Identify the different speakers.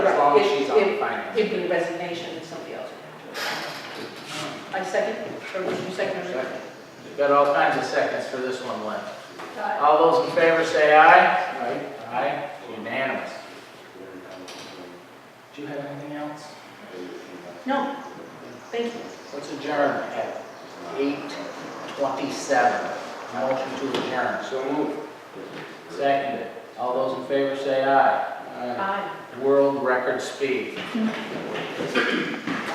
Speaker 1: it'd be a resignation and somebody else would have to. I second, or would you second? or-
Speaker 2: Second. We've got all kinds of seconds for this one left.
Speaker 1: Aye.
Speaker 2: All those in favor say aye. Aye. Unanimous. Do you have anything else?
Speaker 1: No, thank you.
Speaker 2: Let's adjourn at eight twenty-seven. Motion to adjourn.
Speaker 3: So move.
Speaker 2: Seconded. All those in favor say aye.
Speaker 1: Aye.
Speaker 2: World record speed.